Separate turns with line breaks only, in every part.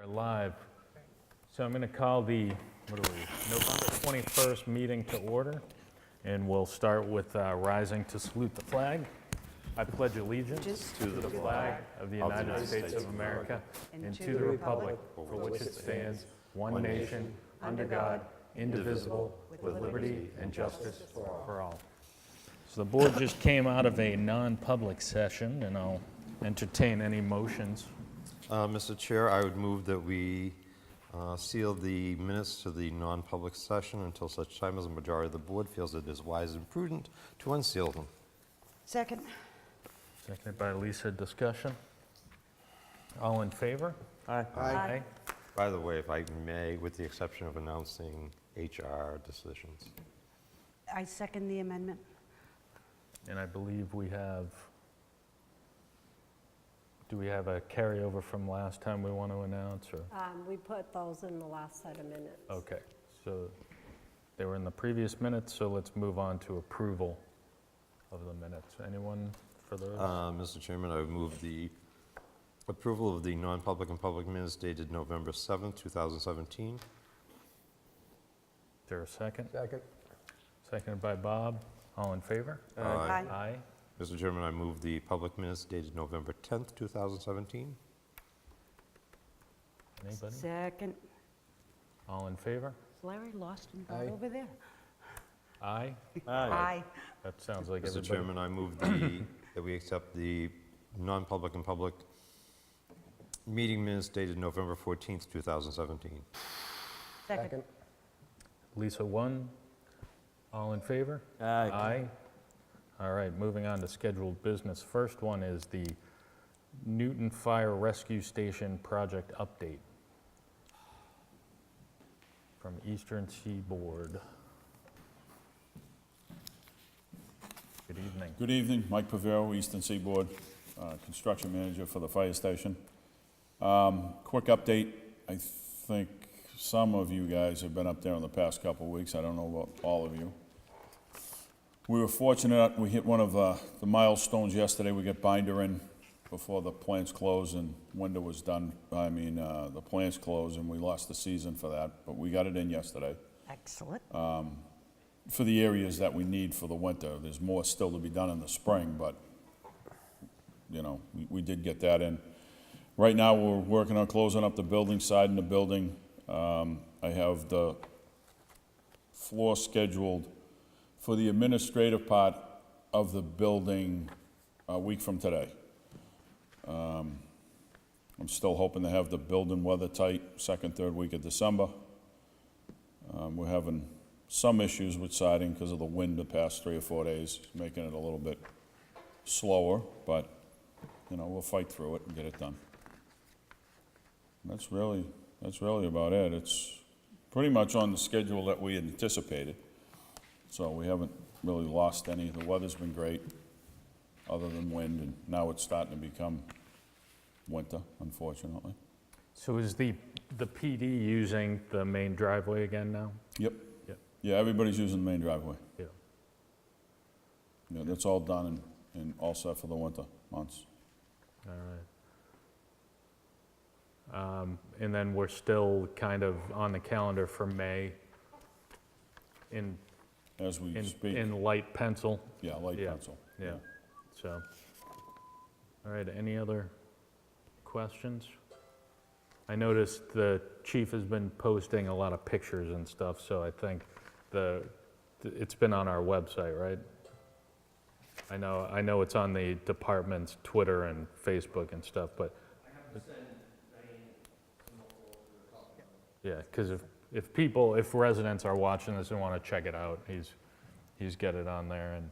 Are live. So I'm going to call the, what are we, November 21st meeting to order, and we'll start with uh, rising to salute the flag. I pledge allegiance to the flag of the United States of America and to the republic for which it stands, one nation, under God, indivisible, with liberty and justice for all. So the board just came out of a non-public session, and I'll entertain any motions.
Uh, Mr. Chair, I would move that we uh, seal the minutes to the non-public session until such time as a majority of the board feels it is wise and prudent to unseal them.
Second.
Seconded by Lisa, discussion? All in favor?
Aye.
By the way, if I may, with the exception of announcing HR decisions.
I second the amendment.
And I believe we have, do we have a carryover from last time we want to announce, or?
Um, We put those in the last set of minutes.
Okay, so they were in the previous minutes, so let's move on to approval of the minutes. Anyone for those?
Uh, Mr. Chairman, I would move the approval of the non-public and public minutes dated November 7th, 2017.
Is there a second? Second. Seconded by Bob. All in favor?
Aye.
Aye.
Aye.
Mr. Uh, Chairman, I move the public minutes dated November 10th, 2017.
Anybody?
Second.
All in favor?
Larry lost and got over there.
Aye?
Aye.
That sounds like
Mr.
everybody.
Chairman, I move the, that we accept the non-public and public meeting minutes dated November 14th, 2017.
Second.
Lisa, one. All in favor? Aye. All right, moving on to scheduled business. First one is the Newton Fire Rescue Station project update from Eastern Seaboard. Good evening.
Good evening, Mike Pavero, Eastern Seaboard, uh, Construction Manager for the fire station. Um, Quick update, I think some of you guys have been up there in the past couple of weeks, I don't know about all of you. We were fortunate, we hit one of uh, the milestones yesterday, we got binder in before the plants closed and window was done, I mean, uh, the plants closed, and we lost the season for that, but we got it in yesterday
Excellent.
for the areas that we need for the winter. There's more still to be done in the spring, but, you know, we, we did get that in. Right now, we're working on closing up the building side and the building. Um, I have the floor scheduled for the administrative part of the building a week from today. Um, I'm still hoping to have the building weather tight second, third week of December. Um, We're having some issues with siding because of the wind the past three or four days, making it a little bit slower, but, you know, we'll fight through it and get it done. That's really, that's really about it. It's pretty much on the schedule that we anticipated, so we haven't really lost any. The weather's been great, other than wind, and now it's starting to become winter, unfortunately.
So is the, the PD using the main driveway again now?
Yep.
Yep.
Yeah, everybody's using the main driveway.
Yeah.
Yeah, that's all done and, and all set for the winter months.
All right. Um, And then we're still kind of on the calendar for May in,
As we
in,
speak,
in light pencil,
yeah, light
yeah,
pencil.
yeah, so. All right, any other questions? I noticed the chief has been posting a lot of pictures and stuff, so I think the, it's been on our website, right? I know, I know it's on the department's Twitter and Facebook and stuff, but Yeah, because if, if people, if residents are watching this and want to check it out, he's, he's got it on there, and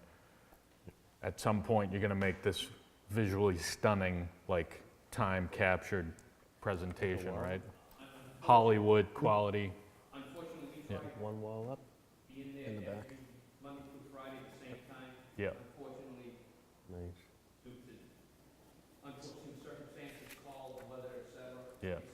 at some point, you're gonna make this visually stunning, like, time-captured presentation, right? Hollywood quality.
One wall up, in the back.
Yeah,
Nice.
yeah,